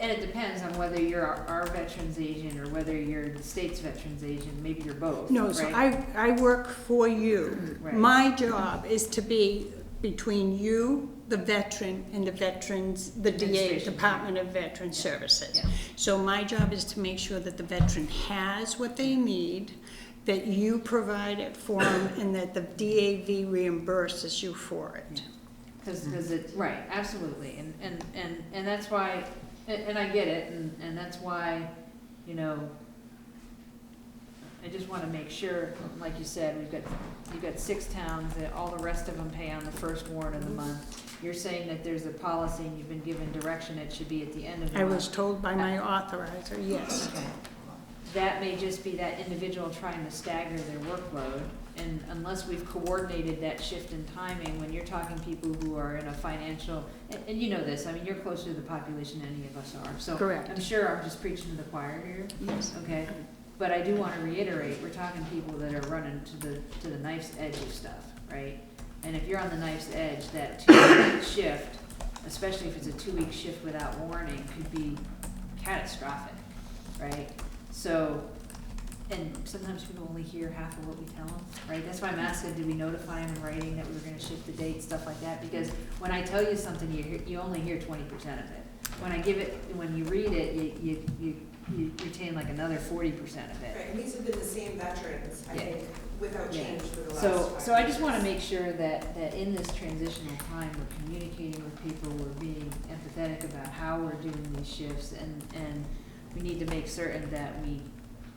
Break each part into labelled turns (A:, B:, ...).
A: And it depends on whether you're our, our veterans agent or whether you're the state's veterans agent, maybe you're both,
B: No, so
A: right?
B: I, I work for you.
A: Right.
B: My job is to be between you, the veteran, and the veterans, the DA,
A: Administration.
B: Department of Veteran Services.
A: Yeah.
B: So my job is to make sure that the veteran has what they need, that you provide it for them, and that the DAV reimburses you for it.
A: Cause, 'cause it, right, absolutely, and, and, and, and that's why, and, and I get it, and, and that's why, you know, I just wanna make sure, like you said, we've got, you've got six towns, that all the rest of them pay on the first warrant of the month. You're saying that there's a policy and you've been given direction, it should be at the end of the
B: I
A: month.
B: was told by my authorizer, yes.
A: that may just be that individual trying to stagger their workload. And unless we've coordinated that shift in timing, when you're talking people who are in a financial, and, and you know this, I mean, you're closer to the population than any of us are, so.
B: Correct.
A: I'm sure I'm just preaching to the choir here,
B: Yes.
A: okay? But I do wanna reiterate, we're talking people that are running to the, to the knife's edge of stuff, right? And if you're on the knife's edge, that two-week shift, especially if it's a two-week shift without warning, could be catastrophic, right? So, and sometimes people only hear half of what we tell them, right? That's why I'm asking, did we notify them in writing that we were gonna shift the date, stuff like that? Because when I tell you something, you hear, you only hear twenty percent of it. When I give it, when you read it, you, you, you, you retain like another forty percent of it.
C: Right, and these have been the same veterans, I
A: Yeah.
C: think, without
A: Yeah.
C: change for the last
A: So,
C: five
A: so I just
C: years.
A: wanna make sure that, that in this transitional time, we're communicating with people, we're being empathetic about how we're doing these shifts, and, and we need to make certain that we,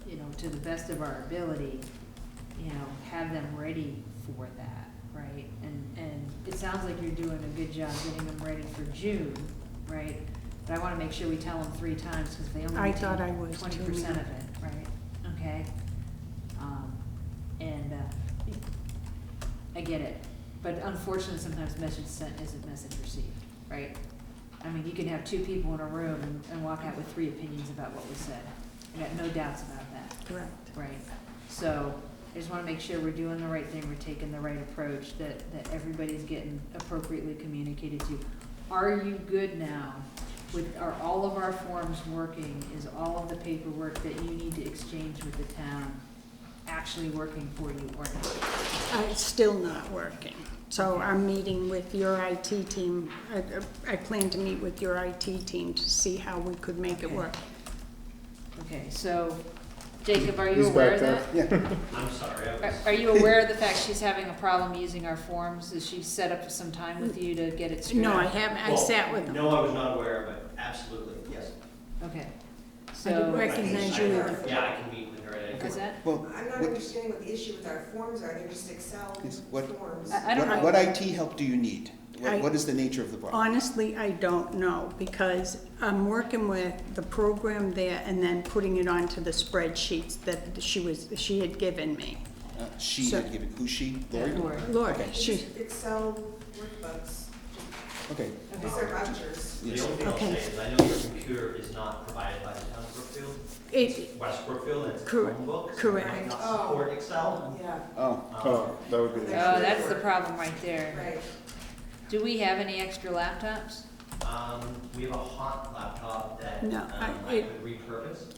A: you know, to the best of our ability, you know, have them ready for that, right? And, and it sounds like you're doing a good job getting them ready for June, right? But I wanna make sure we tell them three times, cause they only
B: I
A: retain
B: thought I was too,
A: twenty percent
B: yeah.
A: of it, right? Okay? Um, and, uh, I get it, but unfortunately, sometimes message sent isn't message received, right? I mean, you can have two people in a room and, and walk out with three opinions about what was said. I got no doubts about that.
B: Correct.
A: Right, so I just wanna make sure we're doing the right thing, we're taking the right approach, that, that everybody's getting appropriately communicated to. Are you good now with, are all of our forms working? Is all of the paperwork that you need to exchange with the town actually working for you or not?
B: Uh, It's still not working. So I'm meeting with your IT team. I- I plan to meet with your IT team to see how we could make it
A: Okay.
B: work.
A: Okay, so Jacob, are you
D: He's
A: aware
D: back
A: of
D: there.
A: that?
D: Yeah,
E: I'm sorry, I
A: Are-
E: was,
A: Are you aware of the fact she's having a problem using our forms? Is she set up some time with you to get it straight?
B: No, I haven't, I
E: Well,
B: sat with them.
E: no, I was not aware of it, absolutely, yes.
A: Okay,
B: I didn't
A: so,
E: I can-
B: recognize
E: I-
B: you.
C: either.
E: Yeah, I can meet with her at any
A: is
E: point.
A: that?
D: well,
C: I'm not
D: what-
C: understanding what the issue with our forms are, they're just Excel
D: Yes, what-
C: forms.
A: I- I don't know.
D: what, what IT help do you need?
B: I-
D: What, what is the nature of the problem?
B: Honestly, I don't know, because I'm working with the program there and then putting it onto the spreadsheets that she was, she had given me.
D: Uh, She
B: So-
D: had given, who's she? Lori?
A: Lori.
B: Lord,
D: Okay.
C: It's
B: she,
C: just Excel workbooks,
D: Okay,
C: these are vouchers.
E: The
D: yes.
E: only thing I'll
B: Okay.
E: say is I know your computer is not provided by the town of Brookfield,
B: it,
E: West Brookfield, and it's a
B: Correct.
E: Chromebook. so it
B: Correct.
E: might not
C: Oh.
E: support Excel.
C: Yeah,
D: Oh,
E: Oh,
D: that would
C: be the-
A: Oh, that's the problem right there.
C: right.
A: Do we have any extra laptops?
E: Um, we have a hot laptop that,
B: No,
E: um,
B: I-
E: I
B: it-
E: could repurpose.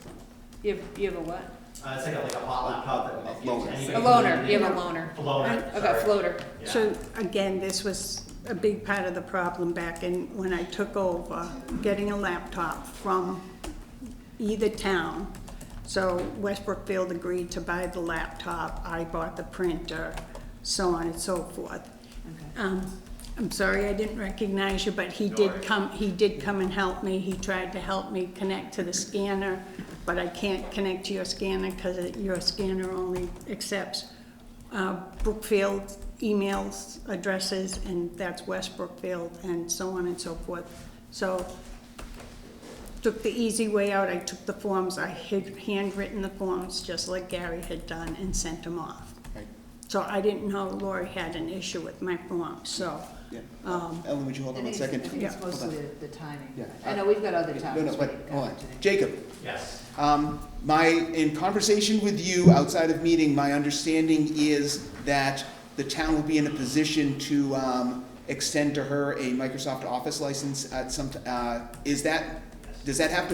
A: You have, you have a what?
E: Uh, it's like a, like a hot laptop that
D: A
E: gives
D: loaner.
E: anybody.
A: A loaner, you have a loaner.
E: Loaner,
A: I've got
E: sorry.
A: floater.
E: Yeah.
B: So again, this was a big part of the problem back in, when I took over, getting a laptop from either town. So Westbrookfield agreed to buy the laptop, I bought the printer, so on and so forth.
A: Okay.
B: Um, I'm sorry I didn't recognize you, but he did come, he did come and help me, he tried to help me connect to the scanner, but I can't connect to your scanner because your scanner only accepts uh, Brookfield emails, addresses, and that's West Brookfield, and so on and so forth. So, took the easy way out, I took the forms, I had handwritten the forms, just like Gary had done, and sent them off.
D: Right.
B: So I didn't know Lori had an issue with my form, so,
D: yeah.
B: um,
D: Ellen, would you hold on one second?
A: I think it's
D: Yeah, hold
A: mostly
D: on.
A: the timing.
D: Yeah.
A: I know, we've got other
D: No,
A: topics.
D: no, but,
A: we can
D: hold on.
A: cover today.
D: Jacob,
E: Yes,
D: Um, my, in conversation with you outside of meeting, my understanding is that the town will be in a position to, um, extend to her a Microsoft Office license at some, t- uh, is that
E: yes.
D: does that have to